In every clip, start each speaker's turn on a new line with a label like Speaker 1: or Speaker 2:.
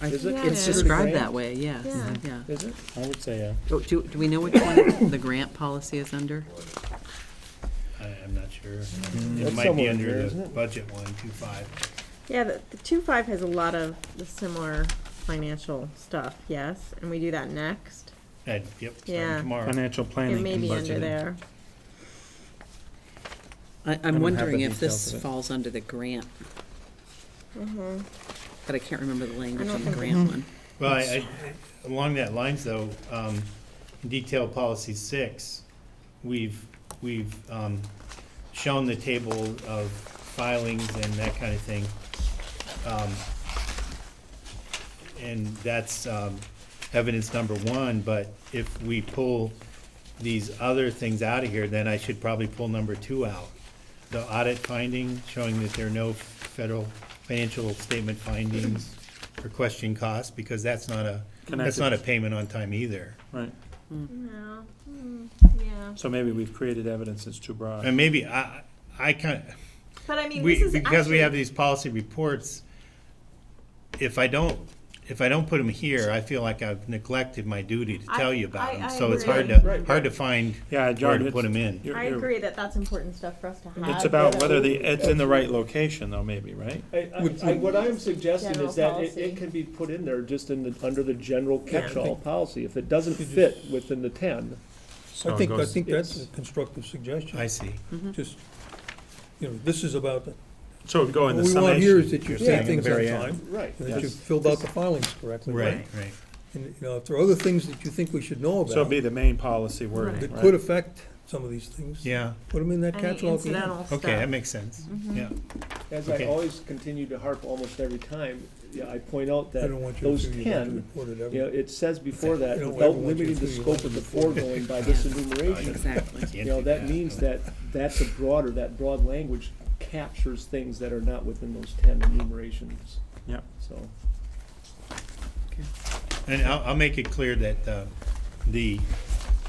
Speaker 1: I-
Speaker 2: Is it
Speaker 1: It's
Speaker 2: Yeah.
Speaker 1: described
Speaker 2: Yeah.
Speaker 1: that way, yes,
Speaker 3: Yeah.
Speaker 1: yeah.
Speaker 2: Is it? I would say, uh,
Speaker 1: Do, do do we know which one the grant policy is under?
Speaker 4: I, I'm not sure.
Speaker 2: Mm. That's
Speaker 4: It might be
Speaker 2: somewhere in there,
Speaker 4: under
Speaker 2: isn't
Speaker 4: the
Speaker 2: it?
Speaker 4: budget one, two five.
Speaker 3: Yeah, the, the two five has a lot of the similar financial stuff, yes, and we do that next.
Speaker 4: And, yep,
Speaker 3: Yeah.
Speaker 4: starting tomorrow.
Speaker 2: financial
Speaker 3: It
Speaker 2: planning.
Speaker 3: may
Speaker 2: and
Speaker 3: be under
Speaker 2: budgeting.
Speaker 3: there.
Speaker 1: I,
Speaker 2: have
Speaker 1: I'm
Speaker 2: the
Speaker 1: wondering if this
Speaker 2: details of it.
Speaker 1: falls under the grant,
Speaker 3: Mhm.
Speaker 1: but Mm-hmm. I can't remember the language
Speaker 3: don't
Speaker 1: on the
Speaker 3: think it-
Speaker 1: grant one.
Speaker 4: Well, I, I, along that lines though, um, detail policy six, we've, we've, um, shown the table of filings and that kind of thing. Um, And that's, um, evidence number one, but if we pull these other things out of here, then I should probably pull number two out. The audit finding, showing that there are no federal financial statement findings for question costs, because that's not a, that's
Speaker 2: Connected.
Speaker 4: not a payment on time either.
Speaker 2: Right,
Speaker 3: No, Mm, yeah,
Speaker 2: so maybe we've created evidence that's too broad.
Speaker 4: And maybe, I, I kind of,
Speaker 3: but I mean, this
Speaker 4: we,
Speaker 3: is
Speaker 4: because we have
Speaker 3: actually,
Speaker 4: these policy reports, if I don't, if I don't put them here, I feel like I've neglected my duty to
Speaker 3: I-
Speaker 4: tell you about
Speaker 3: I-
Speaker 4: them.
Speaker 3: I
Speaker 4: So it's hard
Speaker 3: agree.
Speaker 4: to, hard to find
Speaker 2: Yeah,
Speaker 4: where
Speaker 2: John,
Speaker 4: to
Speaker 2: it's.
Speaker 4: put them in.
Speaker 2: you're-
Speaker 3: I
Speaker 2: you're-
Speaker 3: agree that that's important stuff for us to have.
Speaker 2: It's about
Speaker 3: but-
Speaker 2: whether the, it's in the right location though, maybe, right?
Speaker 5: I, I, I- what I'm suggesting
Speaker 3: General
Speaker 5: is that it,
Speaker 3: policy.
Speaker 5: it can be put in there just in the, under the general catch-all policy. If it doesn't fit within the ten,
Speaker 6: I think, I think that's a
Speaker 5: it's-
Speaker 6: constructive suggestion.
Speaker 4: I see.
Speaker 3: Mm-hmm.
Speaker 6: Just, you know, this is about,
Speaker 2: So we go
Speaker 6: what
Speaker 2: in the
Speaker 6: we
Speaker 2: summation.
Speaker 6: want here is that you
Speaker 4: you're
Speaker 6: say
Speaker 4: saying,
Speaker 6: things
Speaker 4: at the
Speaker 6: on
Speaker 4: very
Speaker 6: time,
Speaker 5: right.
Speaker 6: and that you filled out the filings correctly.
Speaker 4: Right, right.
Speaker 6: And, you know, if there are other things that you think we should
Speaker 2: So
Speaker 6: know
Speaker 2: it'd
Speaker 6: about,
Speaker 2: be the main policy wording,
Speaker 6: that
Speaker 2: right?
Speaker 6: could affect some of these things.
Speaker 4: Yeah,
Speaker 6: Put them in that
Speaker 3: Any
Speaker 6: catch-all.
Speaker 3: incidental stuff. Mm-hmm.
Speaker 4: okay, that makes sense. Yeah.
Speaker 5: As I
Speaker 4: Okay.
Speaker 5: always continue to harp almost every time, yeah, I point out
Speaker 6: I
Speaker 5: that,
Speaker 6: don't want you to
Speaker 5: those
Speaker 6: feel you have to
Speaker 5: 10,
Speaker 6: report it
Speaker 5: you know,
Speaker 6: ever.
Speaker 5: it says before that,
Speaker 6: You don't
Speaker 5: without
Speaker 6: ever want you
Speaker 5: limiting
Speaker 6: to
Speaker 5: the
Speaker 6: feel you
Speaker 5: scope
Speaker 6: have
Speaker 5: of
Speaker 6: to
Speaker 5: the foregoing by this
Speaker 1: Yeah.
Speaker 5: enumeration.
Speaker 1: Exactly.
Speaker 4: Can't
Speaker 5: You know,
Speaker 4: do
Speaker 5: that means
Speaker 4: no.
Speaker 5: that, that's a broader, that broad language captures things that are not within those ten enumerations,
Speaker 2: Yeah.
Speaker 5: so.
Speaker 4: And I'll, I'll make it clear that, uh, the,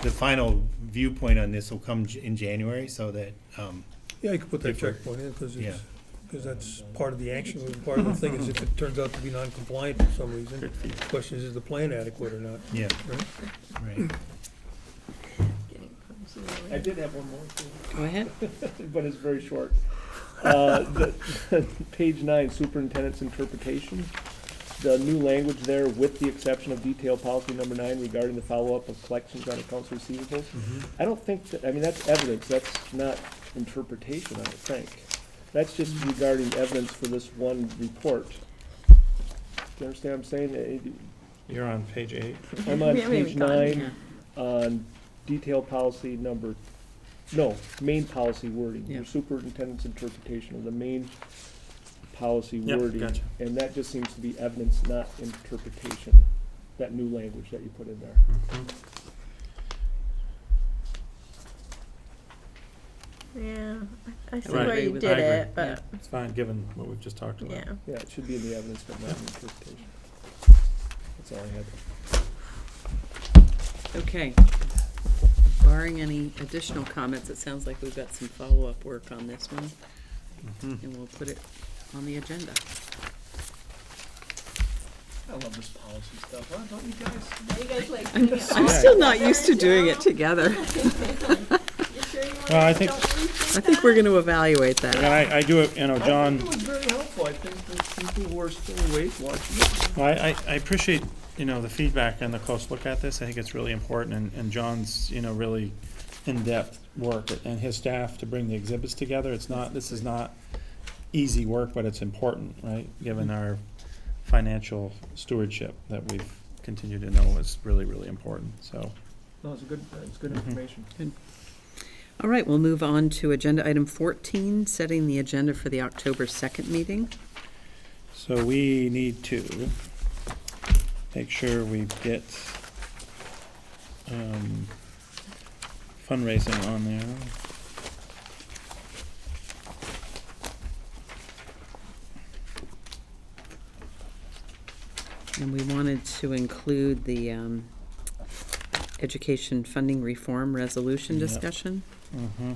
Speaker 4: the final viewpoint on this will come j- in January, so that, um,
Speaker 6: Yeah, you could put that
Speaker 4: If we're-
Speaker 6: checkpoint in, because
Speaker 4: yeah.
Speaker 6: it's, because that's part of the action, and part of the thing is if it turns out to be non-compliant for some reason, the question is, is the plan adequate or not?
Speaker 4: Yeah,
Speaker 6: Right.
Speaker 4: right.
Speaker 3: Getting punched
Speaker 5: I
Speaker 3: in the-
Speaker 5: did have one more thing.
Speaker 1: Go ahead.
Speaker 5: but it's very short. Uh, the- Page nine, superintendent's interpretation. The new language there, with the exception of detail policy number nine regarding the follow-up of collections on accounts receivables. I don't think, that I mean, that's evidence, that's not interpretation, I don't think. That's just regarding evidence for this one report. Do you understand what I'm saying? It-
Speaker 2: You're on page eight.
Speaker 5: I'm on
Speaker 3: We haven't even
Speaker 5: page
Speaker 3: gotten
Speaker 5: nine
Speaker 1: Yeah.
Speaker 5: on detail policy number, no, main policy wording,
Speaker 1: Yeah.
Speaker 5: your superintendent's interpretation of the main policy
Speaker 2: Yep,
Speaker 5: wording.
Speaker 2: gotcha.
Speaker 5: And that just seems to be evidence, not interpretation, that new language that you put in there.
Speaker 2: Mm-hmm.
Speaker 3: Yeah, I- I see
Speaker 2: Right.
Speaker 3: where you
Speaker 1: Agree
Speaker 3: did
Speaker 2: with- I
Speaker 3: it,
Speaker 1: agree,
Speaker 3: but,
Speaker 2: It's fine, given what we've just talked about.
Speaker 3: yeah.
Speaker 5: Yeah, it should be in the evidence, but not in interpretation. That's all I had.
Speaker 1: Okay. Barring any additional comments, it sounds like we've got some follow-up work on this one.
Speaker 2: Mm-hmm.
Speaker 1: And we'll put it on the agenda.
Speaker 5: I love this policy stuff, huh? Don't you guys?
Speaker 3: Are you guys like?
Speaker 1: I'm still not used to doing it together.
Speaker 3: You sure you
Speaker 2: Well, I
Speaker 3: wanna,
Speaker 2: think-
Speaker 3: don't rethink
Speaker 1: I think
Speaker 3: that?
Speaker 1: we're gonna evaluate
Speaker 2: And
Speaker 1: that.
Speaker 2: I, I do, you know,
Speaker 5: I
Speaker 2: John,
Speaker 5: think it was very helpful. I think that people who are still awake watching it.
Speaker 2: I, I, I appreciate, you know, the feedback and the close look at this. I think it's really important and, and John's, you know, really in-depth work and his staff to bring the exhibits together. It's not, this is not easy work, but it's important, right? Given our financial stewardship that we've continued to know is really, really important, so.
Speaker 5: No, it's a good, it's good information.
Speaker 1: All right, we'll move on to agenda item fourteen, setting the agenda for the October second meeting.
Speaker 2: So we need to make sure we get um, fundraising on there.
Speaker 1: And we wanted to include the, um, education funding reform resolution
Speaker 2: Yep.
Speaker 1: discussion.
Speaker 2: Mm-hmm.